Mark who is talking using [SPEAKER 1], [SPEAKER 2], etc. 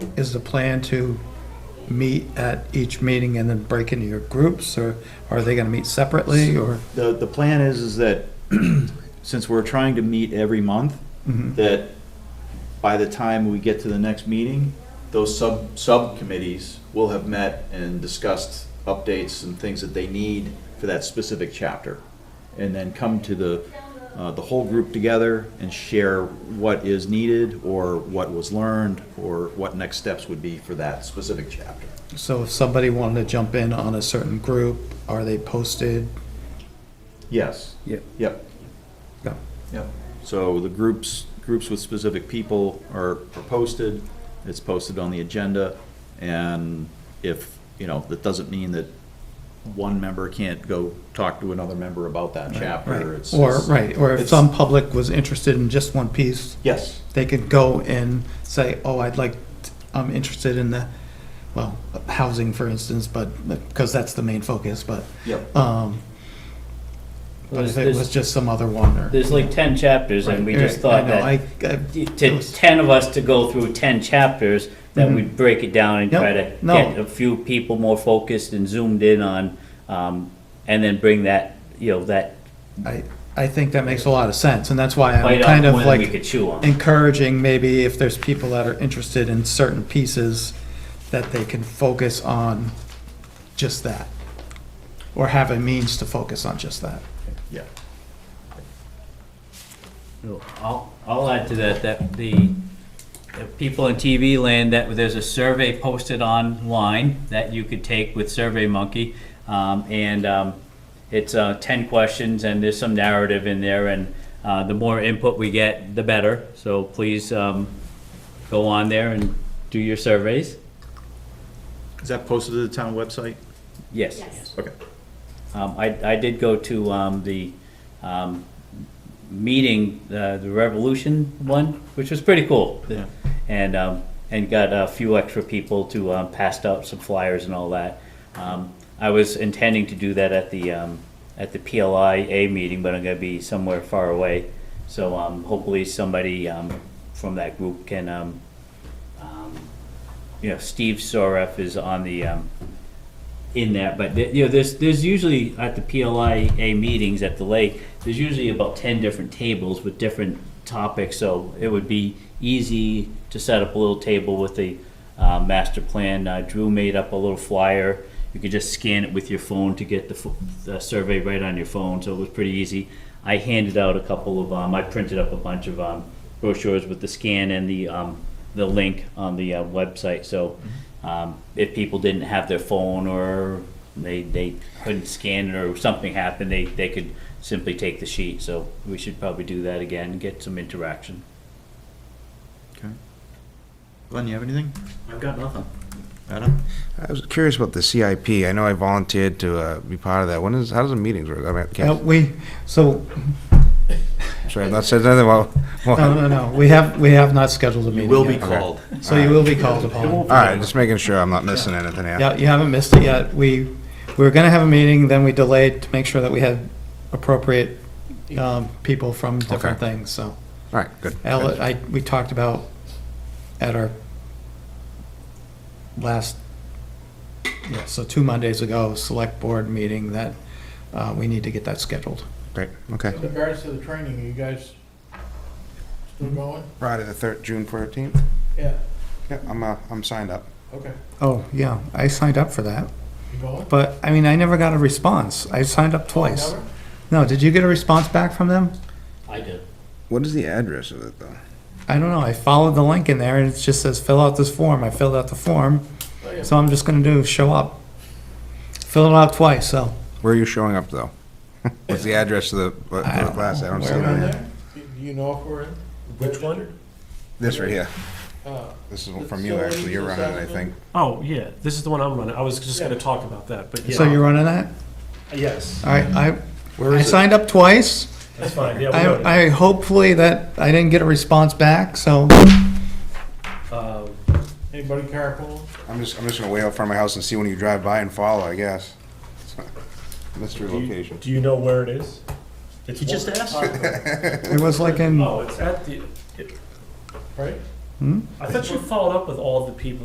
[SPEAKER 1] is the plan to meet at each meeting and then break into your groups, or are they gonna meet separately, or?
[SPEAKER 2] The, the plan is, is that since we're trying to meet every month, that by the time we get to the next meeting, those sub, subcommittees will have met and discussed updates and things that they need for that specific chapter. And then come to the, uh, the whole group together and share what is needed or what was learned or what next steps would be for that specific chapter.
[SPEAKER 1] So if somebody wanted to jump in on a certain group, are they posted?
[SPEAKER 2] Yes.
[SPEAKER 1] Yep.
[SPEAKER 2] Yep.
[SPEAKER 1] Yep.
[SPEAKER 2] Yep. So the groups, groups with specific people are are posted, it's posted on the agenda, and if, you know, that doesn't mean that one member can't go talk to another member about that
[SPEAKER 1] Right.
[SPEAKER 2] chapter. It's-
[SPEAKER 1] Or,
[SPEAKER 2] it's-
[SPEAKER 1] right, or if
[SPEAKER 2] it's-
[SPEAKER 1] some public was interested in just one piece,
[SPEAKER 2] Yes,
[SPEAKER 1] they could go and say, oh, I'd like, I'm interested in the, well, housing, for instance, but, because that's the main focus, but,
[SPEAKER 2] yep,
[SPEAKER 1] um, but if it was just some other one, or.
[SPEAKER 3] There's like ten chapters, and we just thought
[SPEAKER 1] I know, I-
[SPEAKER 3] that
[SPEAKER 1] I- it
[SPEAKER 3] to
[SPEAKER 1] was-
[SPEAKER 3] ten of us to go through ten chapters, that
[SPEAKER 1] Mhm.
[SPEAKER 3] we'd break it down and
[SPEAKER 1] Yep,
[SPEAKER 3] try to
[SPEAKER 1] no.
[SPEAKER 3] get a few people more focused and zoomed in on, um, and then bring that you know that
[SPEAKER 1] I, I think that makes a lot of sense, and that's why I'm
[SPEAKER 3] bite
[SPEAKER 1] kind
[SPEAKER 3] off
[SPEAKER 1] of
[SPEAKER 3] one
[SPEAKER 1] like.
[SPEAKER 3] we could chew on.
[SPEAKER 1] encouraging maybe if there's people that are interested in certain pieces, that they can focus on just that. Or have a means to focus on just that.
[SPEAKER 2] yeah.
[SPEAKER 3] I'll, I'll add to that, that the, the people in TV land, that there's a survey posted online that you could take with SurveyMonkey. Um, and, um, it's, uh, ten questions and there's some narrative in there and, uh, the more input we get, the better. So please, um, go on there and do your surveys.
[SPEAKER 2] Is that posted to the town website?
[SPEAKER 3] Yes.
[SPEAKER 2] Okay.
[SPEAKER 3] Um, I, I did go to, um, the, um, meeting, uh, the Revolution one, which was pretty cool.
[SPEAKER 2] Yeah.
[SPEAKER 3] And, um, and got a few extra people to, um, pass out some flyers and all that. Um, I was intending to do that at the, um, at the PLIA meeting, but I'm gonna be somewhere far away. So, um, hopefully somebody, um, from that group can, um, um, you know, Steve Soref is on the, um, in that, but th- you know, there's there's usually at the PLIA meetings at the lake, there's usually about ten different tables with different topics. So it would be easy to set up a little table with the uh, master plan. Uh, Drew made up a little flyer. You could just scan it with your phone to get the, fo- the survey right on your phone. So it was pretty easy. I handed out a couple of um, I printed up a bunch of um, brochures with the scan and the um, the link on the uh, website. So um, if people didn't have their phone or they, they couldn't scan it or something happened, they, they could simply take the sheet. So we should probably do that again, get some interaction.
[SPEAKER 2] Okay. Glenn, you have anything?
[SPEAKER 3] I've got nothing.
[SPEAKER 2] Adam?
[SPEAKER 4] I was curious about the CIP. I know I volunteered to uh, be part of that. When is, how does the meetings work? I mean, I
[SPEAKER 1] Now,
[SPEAKER 4] can't,
[SPEAKER 1] we, so,
[SPEAKER 4] sorry, I've not said nothing about,
[SPEAKER 1] no,
[SPEAKER 4] all
[SPEAKER 1] no, no, we have, we have not scheduled a meeting
[SPEAKER 2] You will be
[SPEAKER 1] yet.
[SPEAKER 2] called.
[SPEAKER 1] So you will be called upon.
[SPEAKER 4] right, just making sure I'm not missing anything here.
[SPEAKER 1] Yeah, you haven't missed it yet. We, we were gonna have a meeting, then we delayed to make sure that we had appropriate, um, people from different
[SPEAKER 4] Okay.
[SPEAKER 1] things, so.
[SPEAKER 4] All right, good.
[SPEAKER 1] Al, I, we talked about at our last, yeah, so two Mondays ago, select board meeting that, uh, we need to get that scheduled.
[SPEAKER 4] Great, okay.
[SPEAKER 5] In regards to the training, are you guys still going?
[SPEAKER 4] Friday the third, June fourteenth?
[SPEAKER 5] Yeah,
[SPEAKER 4] Yeah, I'm, uh, I'm signed up.
[SPEAKER 5] okay.
[SPEAKER 1] Oh, yeah, I signed up for that,
[SPEAKER 5] You going?
[SPEAKER 1] but, I mean, I never got a response. I signed up twice.
[SPEAKER 5] Never?
[SPEAKER 1] No, did you get a response back from them?
[SPEAKER 3] I did.
[SPEAKER 4] What is the address of it, though?
[SPEAKER 1] I don't know, I followed the link in there and it just says, fill out this form. I filled out the form,
[SPEAKER 5] Oh, yeah.
[SPEAKER 1] so I'm just gonna do, show up. Fill it out twice, so.
[SPEAKER 4] Where are you showing up, though? What's the address of the, what-
[SPEAKER 1] I
[SPEAKER 4] the
[SPEAKER 1] don't
[SPEAKER 4] class? I don't
[SPEAKER 1] know.
[SPEAKER 4] see
[SPEAKER 5] Is it
[SPEAKER 4] it
[SPEAKER 5] on
[SPEAKER 4] on here.
[SPEAKER 5] there? Do do you know if we're in?
[SPEAKER 6] Which one?
[SPEAKER 5] Registered?
[SPEAKER 4] This right here.
[SPEAKER 5] Uh,
[SPEAKER 4] This is from you, actually. You're running it, I think.
[SPEAKER 6] Oh, yeah, this is the one I'm running. I was just gonna talk about that, but yeah.
[SPEAKER 1] So you're running that?
[SPEAKER 6] Yes,
[SPEAKER 1] All right, I,
[SPEAKER 4] Where
[SPEAKER 1] I
[SPEAKER 4] is it?
[SPEAKER 1] signed up twice.
[SPEAKER 6] that's fine, yeah. we got it.
[SPEAKER 1] I, I hopefully that I didn't get a response back, so
[SPEAKER 6] Um,
[SPEAKER 5] Anybody carpool?
[SPEAKER 4] I'm just, I'm just gonna wait out front of my house and see when you drive by and follow, I guess. Mystery
[SPEAKER 6] do you-
[SPEAKER 4] location.
[SPEAKER 6] Do you know where it is? It's
[SPEAKER 3] He just
[SPEAKER 6] one-
[SPEAKER 3] asked.
[SPEAKER 1] it was like in.
[SPEAKER 6] Oh, it's at the,
[SPEAKER 5] Right?
[SPEAKER 6] I thought you followed up with all the people